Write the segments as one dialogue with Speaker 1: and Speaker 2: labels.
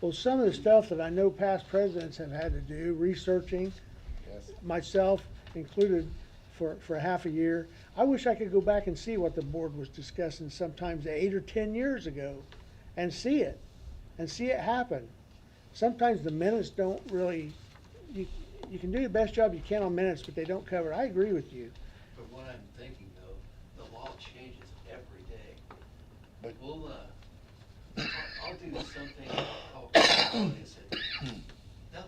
Speaker 1: Well, some of the stuff that I know past presidents have had to do, researching,
Speaker 2: Yes.
Speaker 1: myself included, for, for half a year, I wish I could go back and see what the board was discussing sometimes eight or ten years ago, and see it, and see it happen. Sometimes the minutes don't really, you, you can do the best job you can on minutes, but they don't cover, it. I agree with you.
Speaker 3: But what I'm thinking though, the law changes every day.
Speaker 2: But-
Speaker 3: We'll, uh, I'll, I'll do something called, that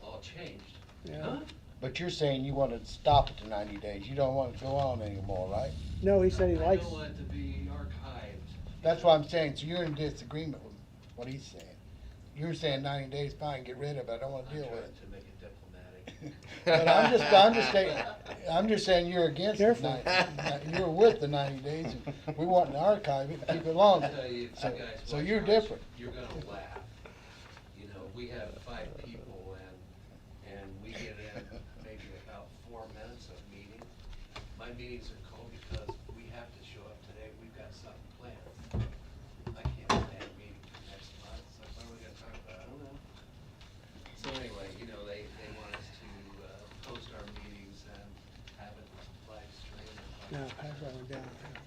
Speaker 3: law changed.
Speaker 1: Yeah.
Speaker 3: Huh?
Speaker 2: But you're saying you want to stop it to ninety days. You don't want it to go on anymore, right?
Speaker 1: No, he said he likes,
Speaker 3: I don't want it to be archived.
Speaker 2: That's what I'm saying. So you're in disagreement with what he's saying. You're saying ninety days, fine, get rid of it. I don't
Speaker 3: I'm
Speaker 2: want to
Speaker 3: trying
Speaker 2: deal with it.
Speaker 3: to make it diplomatic.
Speaker 2: But I'm just, I'm just saying, I'm just saying you're against the
Speaker 1: Careful.
Speaker 2: ninety, you're with the ninety days. and We want to archive it and keep it longer.
Speaker 3: I'll tell you, if
Speaker 2: So,
Speaker 3: you guys
Speaker 2: so
Speaker 3: watch
Speaker 2: you're
Speaker 3: ours,
Speaker 2: different.
Speaker 3: You're gonna laugh. You know, we have five people and, and we get in maybe about four minutes of meeting. My meetings are called because we have to show up today, we've got something planned. I can't plan a meeting for next month, so what are we gonna talk about, I don't know. So anyway, you know, they, they want us to, uh, post our meetings and have it live streamed. and-
Speaker 1: no, pass that one down.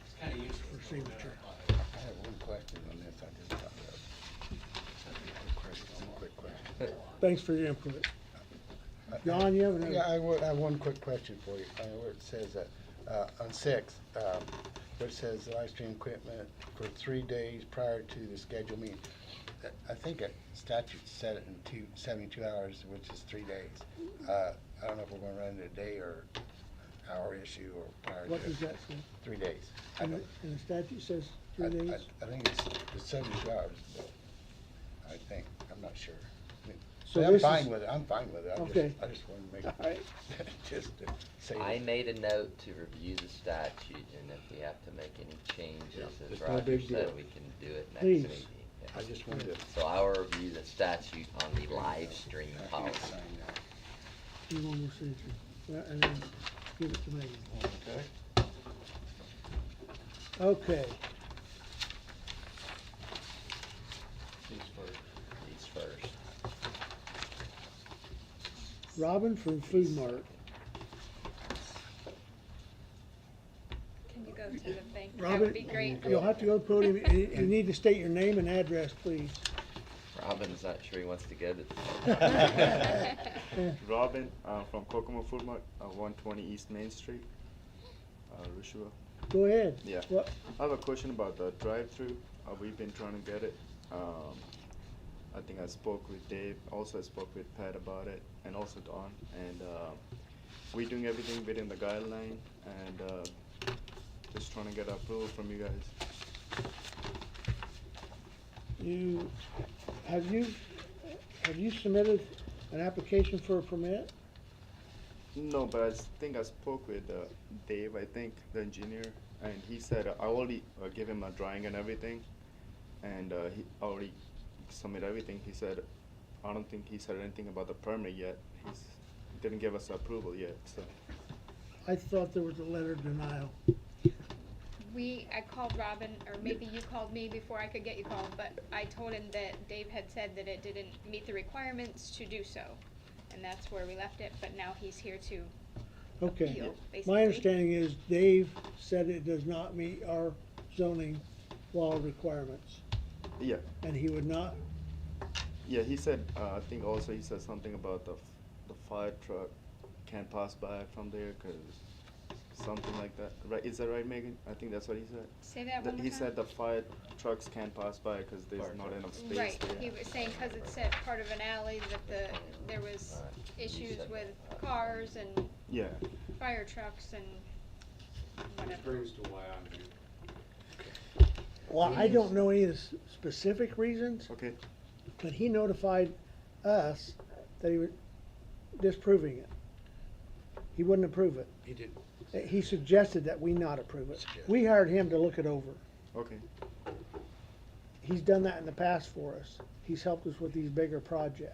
Speaker 3: It's kinda useless.
Speaker 1: For signature.
Speaker 2: I have one question on this. I just thought of a question, one quick question.
Speaker 1: Thanks for your input. Don, you have another?
Speaker 2: Yeah, I would, I have one quick question for you. Uh, where it says, uh, uh, on six, um, where it says live stream equipment for three days prior to the scheduled meeting. Uh, I think a statute said it in two, seventy-two hours, which is three days. Uh, I don't know if we're gonna run into a day or hour issue or prior to.
Speaker 1: What does that say?
Speaker 2: Three days. I
Speaker 1: And
Speaker 2: don't-
Speaker 1: the and the statute says
Speaker 2: I,
Speaker 1: three
Speaker 2: I,
Speaker 1: days?
Speaker 2: I think it's, it's seventy-two hours, but I think, I'm not sure.
Speaker 1: So
Speaker 2: But I'm
Speaker 1: this is-
Speaker 2: fine with it, I'm fine with it, I
Speaker 1: Okay.
Speaker 2: just, I just wanted to make,
Speaker 1: All right,
Speaker 2: just to say.
Speaker 4: I
Speaker 2: this.
Speaker 4: made a note to review the statute, and if we have to make any changes,
Speaker 2: Yeah,
Speaker 4: as
Speaker 2: it's no
Speaker 4: Roger
Speaker 2: big
Speaker 4: said,
Speaker 2: deal.
Speaker 4: we can do it next
Speaker 1: Please.
Speaker 4: meeting.
Speaker 2: I
Speaker 4: yeah.
Speaker 2: just wanted to.
Speaker 4: So I will review the statute on the live stream
Speaker 2: I can't
Speaker 4: policy.
Speaker 2: sign that.
Speaker 1: do one more signature. Well, and then give it to Megan.
Speaker 2: Okay.
Speaker 1: Okay,
Speaker 4: These first.
Speaker 1: Robin from Food Mart.
Speaker 5: Can you go to the thing? That
Speaker 1: Robin,
Speaker 5: would be great.
Speaker 1: You'll have to go to the podium, and you- you need to state your name and address, please.
Speaker 4: Robin's not sure he wants to go to.
Speaker 6: Robin, uh, from Kokomo Food Mart, uh, 120 East Main Street, uh, Rushua.
Speaker 1: Go ahead.
Speaker 6: Yeah.
Speaker 1: What,
Speaker 6: I have a question about the drive-through. Uh, we've been trying to get it. Um, I think I spoke with Dave. Also, I spoke with Pat about it, and also Don. And uh, we're doing everything within the guideline, and uh, just trying to get approval from you guys.
Speaker 1: you, have you, have you submitted an application for a permit?
Speaker 6: No, but I s- think I spoke with uh, Dave. I think the engineer, and he said uh, I already uh, gave him a drawing and everything, and uh, he already submitted everything. He said, I don't think he said anything about the permit yet. He's didn't give us approval yet. So
Speaker 1: I thought there was a letter of denial.
Speaker 5: We, I called Robin, or maybe you called me before I could get you called, but I told him that Dave had said that it didn't meet the requirements to do so. And that's where we left it, but now he's here to
Speaker 1: Okay.
Speaker 5: appeal, basically.
Speaker 1: My understanding is Dave said it does not meet our zoning law requirements,
Speaker 6: yeah,
Speaker 1: and he would not,
Speaker 6: yeah. He said uh, I think also he said something about the f- the fire truck can't pass by from there because something like that. Right? Is that right, Megan? I think that's what he said.
Speaker 5: Say that
Speaker 6: The-
Speaker 5: one more
Speaker 6: he
Speaker 5: time.
Speaker 6: said the fire trucks can't pass by because there's
Speaker 4: Fire
Speaker 6: not
Speaker 4: trucks.
Speaker 6: enough space
Speaker 5: Right,
Speaker 6: there.
Speaker 5: he was saying, cause it said part of an alley, that the, there was
Speaker 4: Alright, you
Speaker 5: issues
Speaker 4: said
Speaker 5: with
Speaker 4: that.
Speaker 5: cars and
Speaker 6: yeah.
Speaker 5: fire trucks and whatever.
Speaker 7: brings to why I'm here.
Speaker 1: well, I don't know any of the s- specific reasons,
Speaker 6: Okay.
Speaker 1: But he notified us that he was disproving it. He wouldn't approve it. Eh,
Speaker 2: He did.
Speaker 1: He suggested that we not approve it. We hired him to look it over.
Speaker 6: Okay.
Speaker 1: He's done that in the past for us. He's helped us with these bigger projects.